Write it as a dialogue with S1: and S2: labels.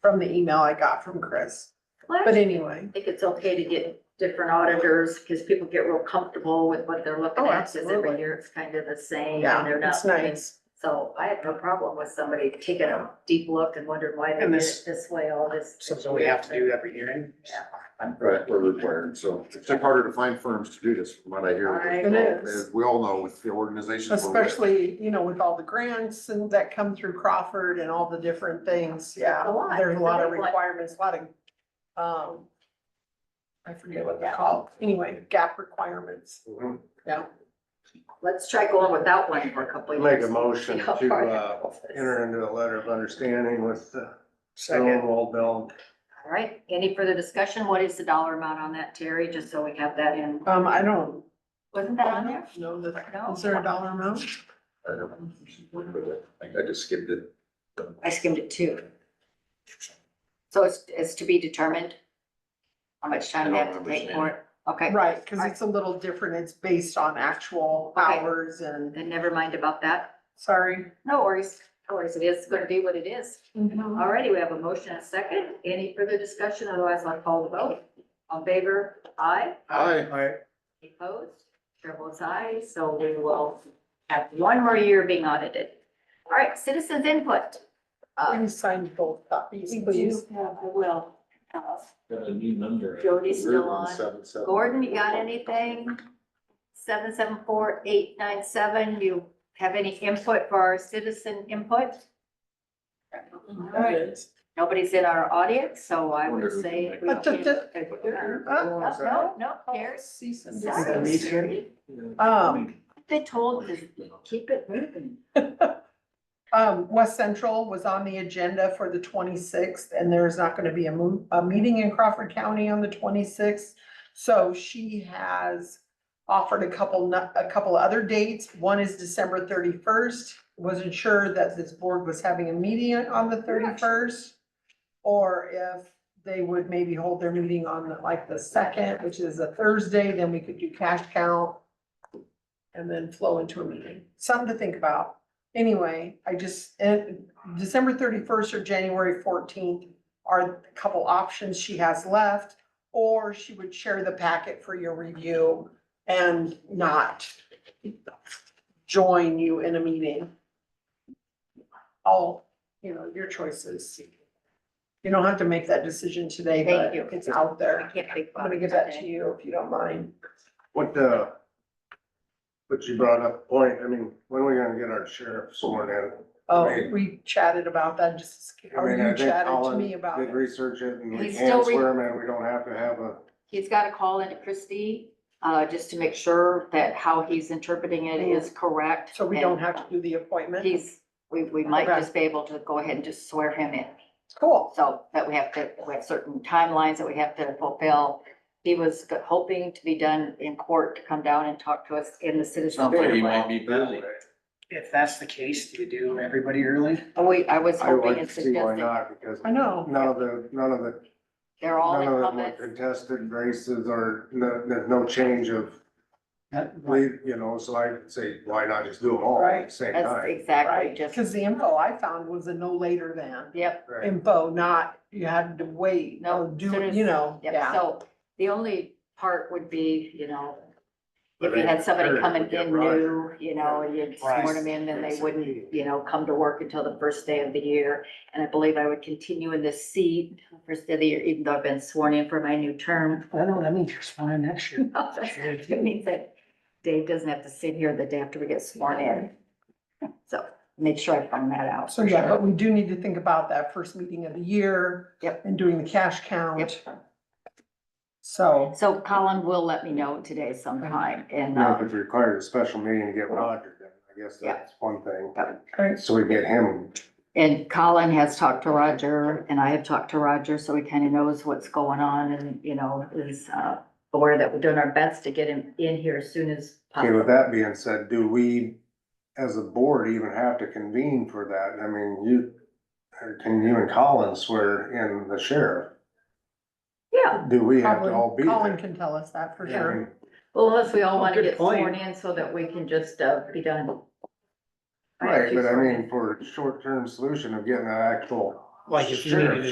S1: from the email I got from Chris.
S2: Well,
S1: But
S2: I
S1: anyway,
S2: think it's okay to get different auditors, because people get real comfortable with what they're looking
S1: Oh,
S2: at, because every
S1: absolutely.
S2: year it's kind of the same, and
S1: yeah,
S2: they're not.
S1: it's nice.
S2: So I have no problem with somebody taking a deep look and wondering why they did
S3: And
S2: it
S3: this-
S2: this way, all this.
S3: So do we have to do every hearing?
S2: Yeah.
S4: Right, we're required, so it's harder to find firms to do this, from what I hear.
S2: I-
S1: It is,
S4: As we all know, with the organizations. we're with.
S1: especially, you know, with all the grants and that come through Crawford and all the different things, yeah.
S2: A lot.
S1: There's a lot of
S2: Really, like-
S1: requirements, a lot of, um, I forget what they're called, anyway, gap requirements,
S3: Mhm.
S1: yeah.
S2: Let's try going without one for a couple of
S5: Make
S2: years.
S5: a motion
S2: See how
S5: to,
S2: far it
S5: uh,
S2: goes.
S5: enter into a letter of understanding with the
S3: Second,
S5: Stonewall Bell.
S2: All right, any further discussion? What is the dollar amount on that, Terry, just so we have that in?
S1: Um, I don't.
S2: Wasn't that on there?
S1: No, that,
S2: No.
S1: is there a dollar amount?
S4: I don't know. I think I just skipped it.
S2: I skimmed it too. So it's, it's to be determined? How much time they have to take for it? Okay,
S1: Right, cause it's a little different, it's based on actual
S2: Okay.
S1: hours and,
S2: then never mind about that.
S1: sorry.
S2: No worries, no worries, it is gonna be what it is. All righty, we have a motion and a second. Any further discussion? Otherwise, I'll call the vote. On favor, aye.
S4: Aye.
S3: I,
S2: Any Opposed? Chair votes aye, so we will have one more year being audited. All right, citizens input. Uh,
S1: Can you sign both copies,
S2: we
S1: please?
S2: do have, I will. Uh,
S6: Got a new number.
S2: Jody's still on.
S4: 177.
S2: Gordon, you got anything? Seven seven four eight nine seven, you have any input for our citizen input? All right, nobody's in our audience, so I would say. we
S1: But the- the-
S2: can-
S3: Oh,
S1: Uh,
S2: No, no, no, there's.
S1: cease and
S2: Sorry.
S1: desist.
S3: me too.
S1: Um,
S2: They told us, keep it moving.
S1: um, West Central was on the agenda for the twenty-sixth, and there's not gonna be a mo- a meeting in Crawford County on the twenty-sixth. So she has offered a couple, nu- a couple other dates. One is December thirty-first. Wasn't sure that this board was having a meeting on the thirty-first. Or if they would maybe hold their meeting on the- like the second, which is a Thursday, then we could do cash count. And then flow into a meeting. Something to think about. Anyway, I just, and December thirty-first or January fourteenth are a couple options she has left. Or she would share the packet for your review and not join you in a meeting. All, you know, your choices. You don't have to make that decision today,
S2: Thank
S1: but
S2: you.
S1: it's out
S2: I
S1: there.
S2: can't think
S1: I'm
S2: about
S1: gonna
S2: it
S1: give that to
S2: today.
S1: you if you don't mind.
S5: What, uh, what you brought up, point, I mean, when are we gonna get our sheriff sworn in?
S1: Oh,
S5: Right.
S1: we chatted about that just,
S5: I
S1: or
S5: mean,
S1: you
S5: I think
S1: chatted to
S5: Colin
S1: me about
S5: Did
S1: it.
S5: research it and we
S2: He's still
S5: can
S2: re-
S5: swear him in, we don't have to have a,
S2: He's got to call in to Christie, uh, just to make sure that how he's interpreting it is correct.
S1: Mm. So we don't have to do the appointment.
S2: He's, we, we might
S1: Okay.
S2: just be able to go ahead and just swear him in.
S1: Cool.
S2: So that we have to, we have certain timelines that we have to fulfill. He was hoping to be done in court to come down and talk to us in the citizen.
S6: Sounds like he might be busy.
S3: If that's the case, do you do everybody early?
S2: Oh, wait, I was
S5: I would
S2: hoping and
S5: like to see why
S2: suggesting,
S5: not, because
S1: I know.
S5: none of the, none of the,
S2: they're all
S5: none of them were
S2: incumbents.
S5: contested races or, no- there's no change of
S3: That-
S5: lead, you know, so I would say, why not just do them all at
S1: Right.
S5: the same
S2: That's
S5: time?
S2: exactly
S1: Right,
S2: just,
S1: because the info I found was a no later than
S2: yep.
S5: Right.
S1: info, not you had to wait,
S2: No,
S1: no, do,
S2: soon
S1: it,
S2: as-
S1: you know,
S2: Yeah,
S1: yeah.
S2: so the only part would be, you know, if
S5: But
S2: you
S5: I-
S2: had somebody
S5: Eric
S2: coming
S5: would get
S2: in
S5: Roger.
S2: new, you know, you'd sworn them in, then they wouldn't, you know, come to work until the first day of the year. And I believe I would continue in this seat until the first day of the year, even though I've been sworn in for my new term.
S3: I know, that means you're fine next year.
S2: It means that Dave doesn't have to sit here the day after we get sworn in. So make sure I find that out.
S1: So yeah, but we do need to think about that first meeting of the year.
S2: Yep.
S1: And doing the cash count,
S2: Yep.
S1: so,
S2: So Colin will let me know today sometime and,
S5: Now, if
S2: uh,
S5: it requires a special meeting to get Roger, then I guess
S2: Yeah.
S5: that's one thing.
S1: okay,
S5: So we get him,
S2: And Colin has talked to Roger and I have talked to Roger, so he kind of knows what's going on and, you know, is uh, aware that we're doing our best to get him in here as soon as
S5: okay, with
S2: possible.
S5: that being said, do we, as a board, even have to convene for that? I mean, you, or can you and Colin swear in the sheriff?
S2: Yeah,
S5: Do we have to all
S1: Colin,
S5: be
S1: Colin
S5: there?
S1: can tell us that for
S5: Yeah, I mean,
S1: sure.
S2: well, unless we all
S3: Oh,
S2: want to
S3: good
S2: get
S3: point.
S2: sworn in so that we can just uh, be done. I have
S5: Right,
S2: two
S5: but I
S2: sworn in.
S5: mean, for a short-term solution of getting an actual
S3: Like if you needed to
S5: sheriff,